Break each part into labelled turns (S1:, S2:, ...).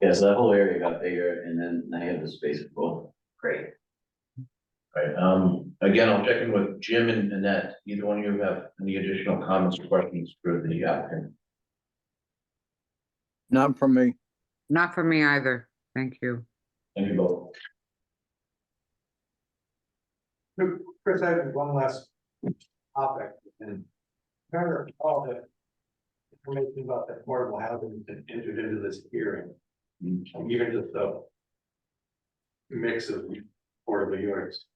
S1: Yeah, so that whole area got bigger and then I had the space for both.
S2: Great.
S3: Right, um, again, I'll check in with Jim and Annette, either one of you have any additional comments or questions for the applicant?
S4: Not from me.
S5: Not for me either. Thank you.
S3: Thank you both.
S6: Chris, I have one last topic, and I all the information about the affordable housing that entered into this hearing, and even just the mix of affordable units.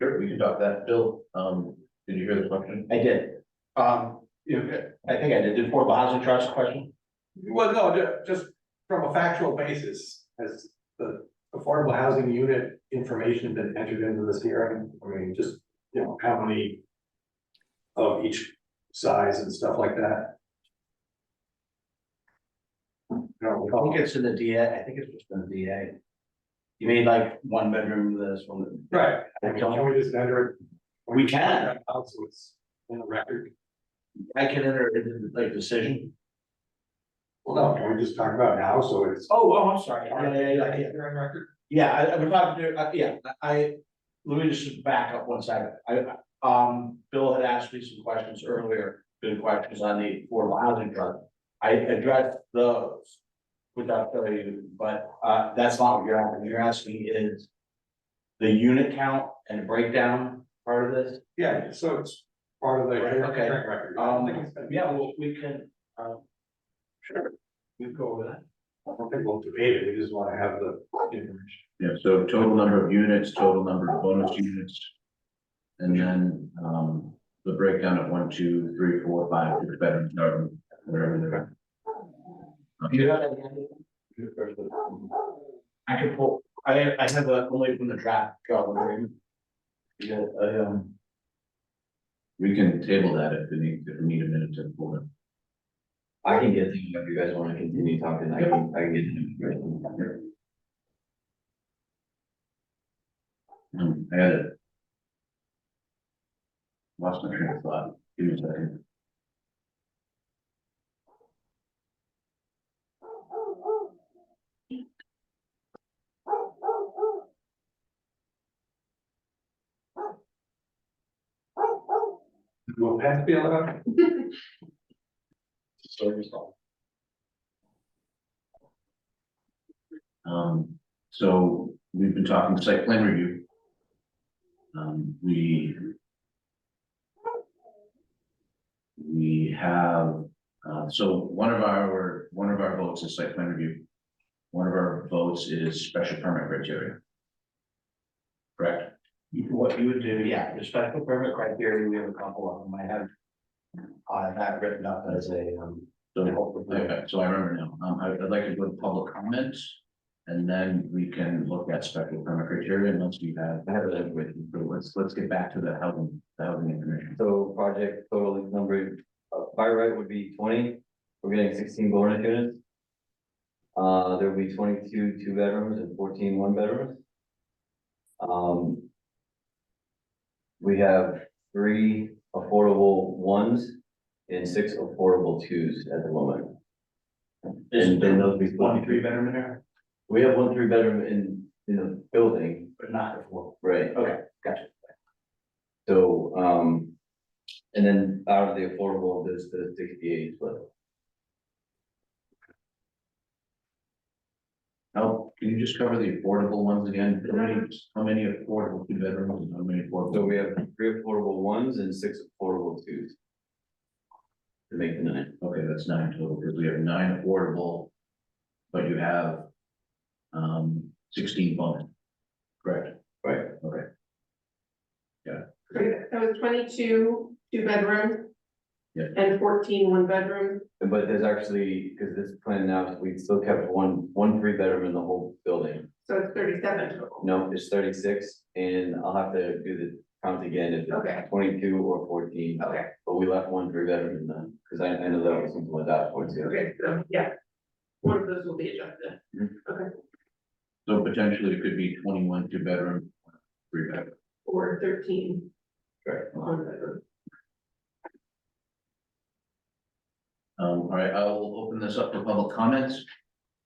S3: Sure, we can talk that. Bill, um, did you hear the question?
S1: I did,
S6: Um, you know,
S1: I think I did, did affordable housing trust question?
S6: well, no, ju- just from a factual basis, has the affordable housing unit information been entered into this hearing? I mean, just, you know, how many of each size and stuff like that? No,
S1: I think it's in the DA, I think it's just in the DA. You mean like one bedroom, this one?
S6: right, I
S1: I
S6: mean,
S1: don't,
S6: can we just enter it?
S1: We can.
S6: Also, it's in the record,
S1: I can enter it into like decision.
S6: well, no, can we just talk about it now, so it's.
S1: Oh, oh, I'm sorry.
S6: You're on record?
S1: Yeah, I, I would probably, do- uh, yeah, I, I- let me just back up one second. I, I- um, Bill had asked me some questions earlier, good questions on the affordable housing trust. I addressed those without telling you, but, uh, that's not what you're asking. You're asking is the unit count and breakdown part of this?
S6: Yeah, so it's part of the.
S1: Right, okay.
S6: hearing record. I don't think
S1: Um,
S6: it's been-
S1: yeah, well, we can, um, sure, we can go over that.
S6: I don't think we'll debate it, we just wanna have the information.
S3: Yeah, so total number of units, total number of bonus units. And then, um, the breakdown of one, two, three, four, five, six bedrooms, however, whatever they're.
S1: Do you have that handy? I can pull, I, I have a, only from the draft, draw one, right? You got, I, um,
S3: We can table that if we need, if we need a minute to pull it.
S1: I can get, them if you guys wanna continue talking, I can, I can get. them.
S3: Um, I had it. Lost my train of thought. Give me a second.
S6: Will Pat be allowed?
S1: Sort yourself.
S3: Um, so we've been talking site plan review. Um, we. We have, uh, so one of our, one of our votes is site plan review. One of our votes is special permit criteria. Correct?
S1: You- What you would do, yeah, the special permit criteria, we have a couple of them, I have. Uh, that written up as a, um.
S3: So,
S1: hopefully-
S3: okay, so I remember now, um, I- I'd like to go to public comments. And then we can look at special permit criteria unless we have.
S1: I have it written.
S3: But let's, let's get back to the housing, the housing information.
S7: So project total number, uh, by right would be twenty, we're getting sixteen bonus units. Uh, there will be twenty-two two bedrooms and 14 one bedrooms. Um. We have three affordable ones and six affordable twos at the moment. And then those will be
S1: One three
S7: 23.
S1: bedroom in there,
S7: we have one three bedroom in, in the building,
S1: but not a four.
S7: right?
S1: Okay, gotcha.
S7: So, um, and then out of the affordable, there's the sixty-eight, but
S3: Now, can you just cover the affordable ones again? How many, how many affordable two bedrooms and how many
S7: so
S3: affordable?
S7: we have three affordable ones and six affordable twos. To make the nine,
S3: Okay, that's nine total, because we have nine affordable. But you have. Um, sixteen bonus. Correct?
S7: Right.
S3: Okay,
S2: That was twenty-two, two bedroom.
S3: Yeah.
S2: And 14 one bedroom,
S7: but there's actually, because this plan now, we still kept one, one three bedroom in the whole building.
S2: so it's thirty-seven total.
S7: No, it's thirty-six, and I'll have to do the count again if
S2: Okay.
S7: it's twenty-two or fourteen,
S2: Okay,
S7: but we left one three bedroom in the, because I, I know that was something like that, one too.
S2: okay, so, yeah. One of those will be adjusted.
S3: so potentially it could be twenty-one two bedroom, three bedroom.
S2: Or thirteen
S3: Correct.
S2: one bedroom.
S3: Um, all right, I'll open this up to public comments.